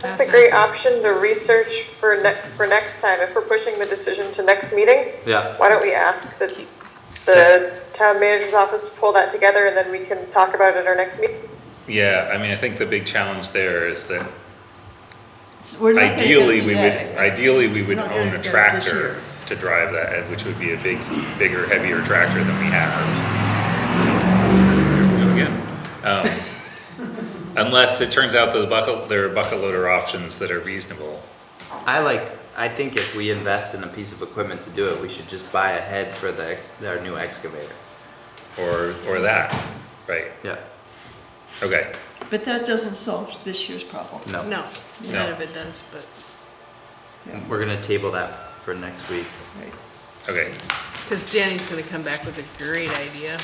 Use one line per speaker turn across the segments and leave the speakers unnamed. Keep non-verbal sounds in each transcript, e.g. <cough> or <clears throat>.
That's a great option to research for ne, for next time, if we're pushing the decision to next meeting.
Yeah.
Why don't we ask the, the town manager's office to pull that together and then we can talk about it at our next meeting?
Yeah, I mean, I think the big challenge there is that
So We're not gonna do
ideally,
it
we would,
today.
ideally, we would
We're not gonna
own
do
a
it this
tractor
year.
to drive that, which would be a big, bigger, heavier tractor than we have. There we go again.
<laughs>
Um, Unless it turns out that the bucket, there are bucket loader options that are reasonable.
I like, I think if we invest in a piece of equipment to do it, we should just buy a head for the, our new excavator.
Or, or that, right,
Yeah,
okay,
But that doesn't solve this year's problem.
no.
No,
No.
none of it does, but
We're gonna table that for next week.
Right.
okay.
because Danny's going to come back with a great idea.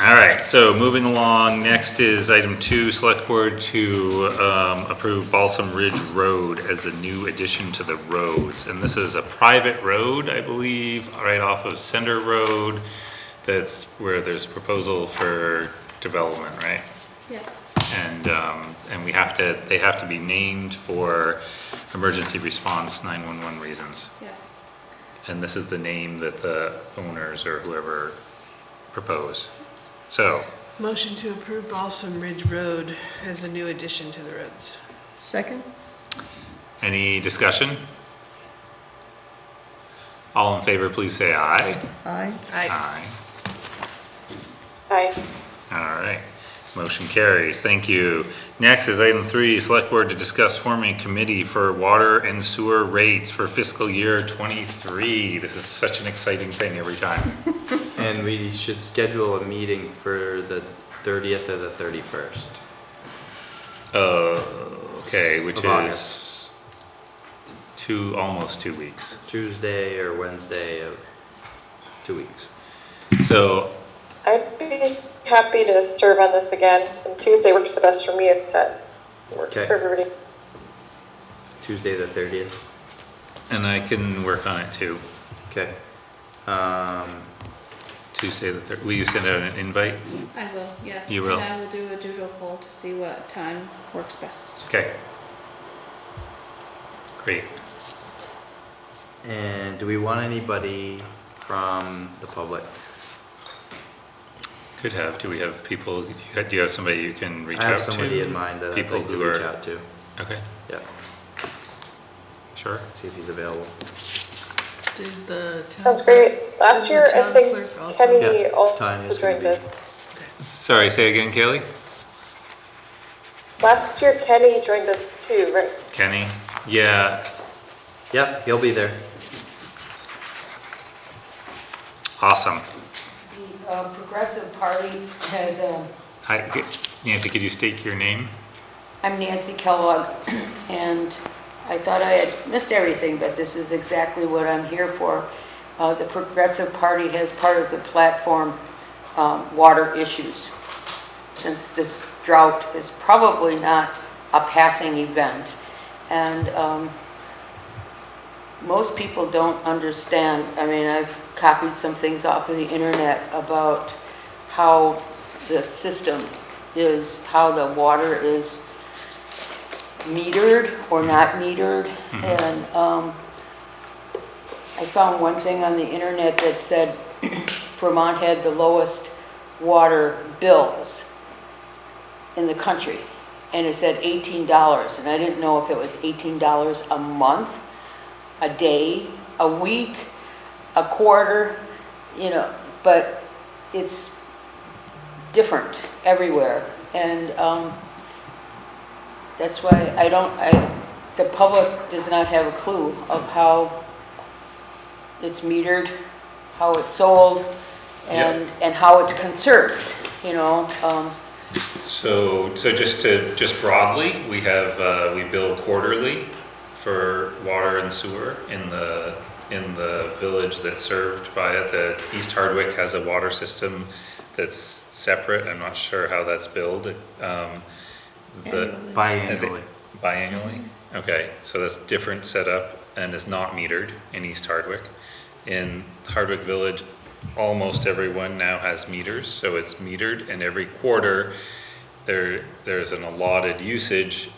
All right, so moving along, next is item two, select board to um, approve Balsam Ridge Road as a new addition to the roads. And this is a private road, I believe, right off of Center Road. That's where there's a proposal for development, right?
Yes.
And, um, and we have to, they have to be named for emergency response 911 reasons.
Yes.
And this is the name that the owners or whoever propose. So,
Motion to approve Balsam Ridge Road as a new addition to the roads.
Second?
Any discussion? All in favor, please say aye.
Aye.
I,
Aye.
Aye.
All right, motion carries, thank you. Next is item three, select board to discuss forming a committee for water and sewer rates for fiscal year twenty-three. This is such an exciting thing every time.
And we should schedule a meeting for the thirtieth or the thirty-first.
Uh, okay, which
Of
is two, almost two weeks.
Tuesday or Wednesday of two weeks.
So
I'd be happy to serve on this again, and Tuesday works the best for me if that works
Okay.
for everybody.
Tuesday the thirtieth.
And I can work on it too,
Okay. Um,
Tuesday the third, will you send out an invite?
I will, yes.
You will.
And I will do a doodle poll to see what time works best.
Okay. Great.
and do we want anybody from the public?
Could have, do we have people, do you have somebody you can reach
I
out to?
have somebody in mind that I'd
people
like
who
to reach
are-
out to.
Okay,
Yeah,
sure.
see if he's available.
did the town.
Sounds great. Last
Does
year,
the
I
town
think
clerk also-
Kenny
Yeah,
also
Tanya's
joined
gonna be-
this.
Sorry, say again, Kaylee?
Last year Kenny joined us too, right?
Kenny? Yeah,
Yep, he'll be there.
awesome.
The uh, Progressive Party has, uh,
Hi, Nancy, could you state your name?
I'm Nancy Kellogg, and I thought I had missed everything, but this is exactly what I'm here for. Uh, The Progressive Party has part of the platform, um, water issues, since this drought is probably not a passing event. And um, most people don't understand, I mean, I've copied some things off of the internet about how the system is, how the water is metered or not metered. And um, I found one thing on the internet that said <clears throat> Vermont had the lowest water bills in the country. And it said $18, and I didn't know if it was $18 a month a day, a week, a quarter, you know, but it's different everywhere. And um, that's why I don't, I, the public does not have a clue of how it's metered, how it's sold, and, and how it's conserved, you know? um,
So, so just to, just broadly, we have, uh, we bill quarterly for water and sewer in the, in the village that's served by it. The East Hardwick has a water system that's separate. I'm not sure how that's billed. Um, the- is it
Biannually.
Biannually? Okay, so that's different setup and is not metered in East Hardwick. In Hardwick Village, almost everyone now has meters, so it's metered and every quarter there, there's an allotted usage